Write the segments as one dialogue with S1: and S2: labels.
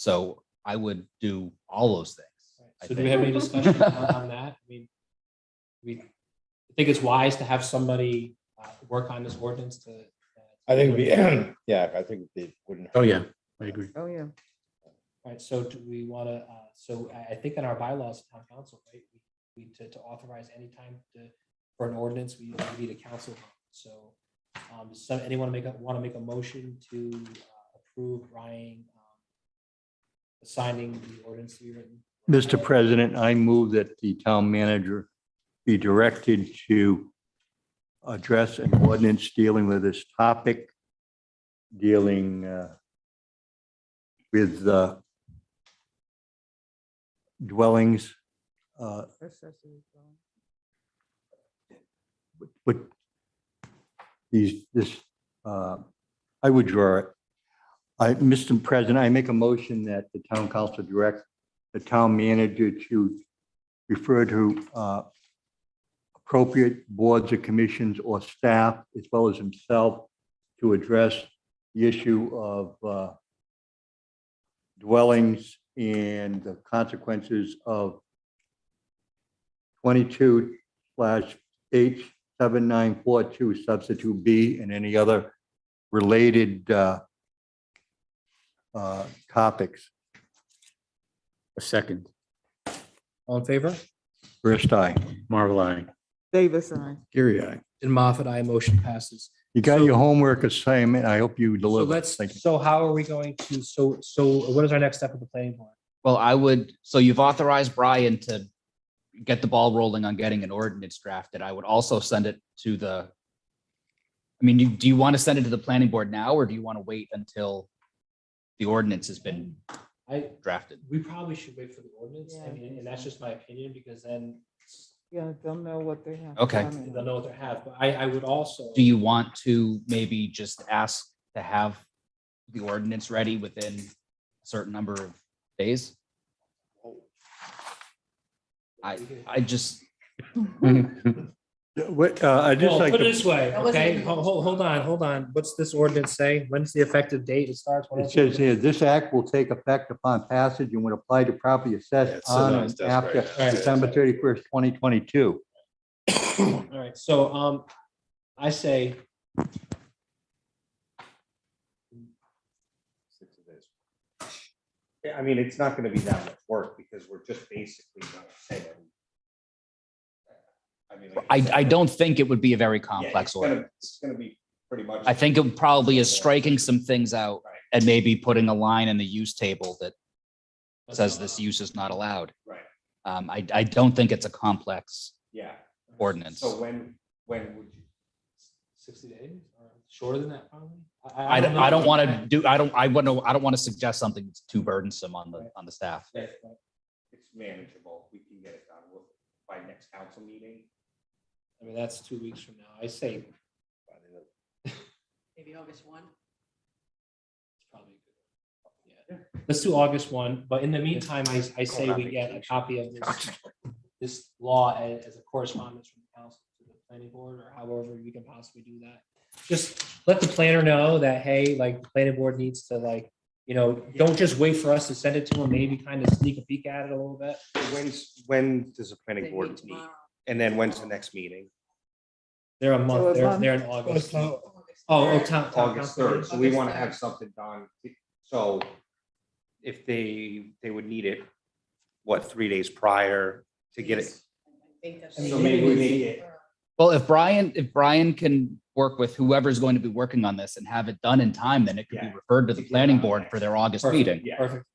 S1: So I would do all those things. I
S2: So do
S1: think.
S2: we have any discussion on on that? I mean, we, I think it's wise to have somebody uh, work on this ordinance to. uh,
S3: I think we, yeah, I think they wouldn't.
S4: Oh, yeah, I agree.
S5: Oh, yeah.
S2: All right, so do we want to, uh, so I, I think in our bylaws, town council, right, we- we, to, to authorize any time to, for an ordinance, we we need a council. vote. So, um, does some, anyone make, want to make a motion to uh, approve Ryan um, assigning the ordinance to be written?
S4: Mr. President, I move that the town manager be directed to address an ordinance dealing with this topic, dealing uh, with uh, dwellings, uh,
S5: accessory dwelling.
S4: but these, this, uh, I would draw it. I, Mr. President, I make a motion that the town council direct the town manager to refer to uh, appropriate boards or commissions or staff, as well as himself, to address the issue of uh, dwellings and the consequences of 22 slash H seven nine four two substitute B and any other related uh, uh, topics.
S6: A second.
S7: All in favor?
S4: First eye,
S6: Marvel eye.
S5: Davis, I.
S6: Gary eye.
S7: And Moffat, I motion passes.
S4: you got
S7: So-
S4: your homework assignment. I hope you
S7: So
S4: deliver.
S7: let's,
S4: Thank you.
S2: So how are we going to, so, so what is our next step with the planning board?
S1: Well, I would, so you've authorized Brian to get the ball rolling on getting an ordinance drafted. I would also send it to the, I mean, you- do you want to send it to the planning board now, or do you want to wait until the ordinance has been
S2: I,
S1: drafted?
S2: we probably should wait for the ordinance. I
S5: Yeah.
S2: mean, and that's just my opinion because then
S5: Yeah, they'll know what they have.
S1: Okay.
S5: coming.
S2: they'll know what they have. But I, I would also.
S1: Do you want to maybe just ask to have the ordinance ready within a certain number of days? I just,
S4: Yeah, What, uh, I just
S2: Well,
S4: like,
S2: put it
S4: to-
S2: this way,
S8: That wasn't
S2: okay?
S8: even-
S2: Hold, hold, hold on, hold on. What's this ordinance say? When's the effective date it starts? When
S4: it
S2: is it?
S4: says here, this act will take effect upon passage and would apply to property assessed on and after
S2: Alright.
S4: December thirty-first, twenty twenty-two.
S2: All right, so, um, I say.
S3: Yeah, I mean, it's not gonna be that much work because we're just basically gonna say. I mean, like
S1: I,
S3: said,
S1: I don't think it would be a very
S3: yeah,
S1: complex
S3: it's gonna-
S1: order.
S3: It's gonna be pretty much.
S1: I think it probably is striking some things out
S3: Right.
S1: and maybe putting a line in the use table that says this use is not allowed.
S3: Right.
S1: Um, I, I don't think it's a complex
S3: Yeah.
S1: ordinance.
S3: So when, when would you?
S2: Sixty days or shorter than that probably?
S1: I, don't- I don't want to
S2: know.
S1: do, I don't, I wouldn't, I don't want to suggest something that's too burdensome on the, on the staff.
S3: It's manageable. We can get it done We'll- by next council meeting.
S2: I mean, that's two weeks from now. I say. it's
S3: by the end of-
S8: Maybe August one.
S2: probably good. Yeah, Let's do August one, but in the meantime, I, I say we get a copy of this, this law a- as, a correspondence from the council to the planning board or however we can possibly do that. Just let the planner know that, hey, like, the planning board needs to like, you know, don't just wait for us to send it to them, maybe kind of sneak a peek at it a little bit.
S3: When's, when does the
S8: They
S3: planning
S8: meet
S3: board meet?
S8: tomorrow.
S3: And then when's the next meeting?
S2: They're a
S5: So a
S2: month, they're,
S5: month.
S2: they're in August. Oh,
S8: August
S2: oh,
S8: third.
S2: town, town
S3: August
S2: council.
S3: third, so we
S8: August
S3: want to
S8: third.
S3: have something done, so if they, they would need it, what, three days prior to get it?
S8: Yes. I think that's-
S3: So maybe we make it-
S1: Well, if Brian, if Brian can work with whoever's going to be working on this and have it done in time, then it could be
S3: Yeah.
S1: referred to the
S3: Yeah.
S1: planning board for their August
S2: Perfect.
S1: meeting.
S3: Yeah.
S2: Perfect.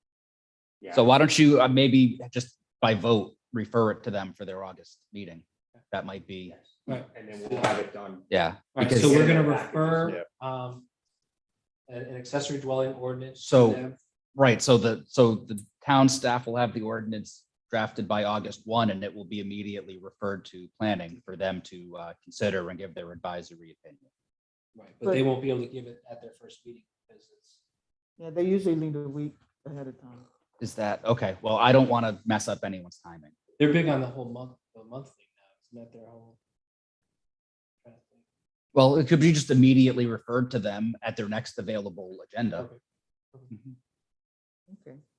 S3: Yeah.
S1: So why don't you uh, maybe just by vote, refer it to them for their August meeting? That might be,
S2: Right.
S3: And then we'll have it done.
S1: yeah.
S2: All right,
S1: Because-
S2: so we're gonna
S3: Yeah.
S2: refer, um, an, an accessory dwelling ordinance. to
S1: So-
S2: them.
S1: Right, so the, so the town staff will have the ordinance drafted by August one, and it will be immediately referred to planning for them to uh, consider and give their advisory opinion.
S2: Right, but they
S5: But-
S2: won't be able to give it at their first meeting because it's.
S5: Yeah, they usually leave a week ahead of time.
S1: Is that, okay, well, I don't want to mess up anyone's timing.
S2: They're big on the whole month, the month thing now, isn't that their whole? trying to think.
S1: Well, it could be just immediately referred to them at their next available agenda.
S2: Perfect.
S1: Mhm.
S5: Okay.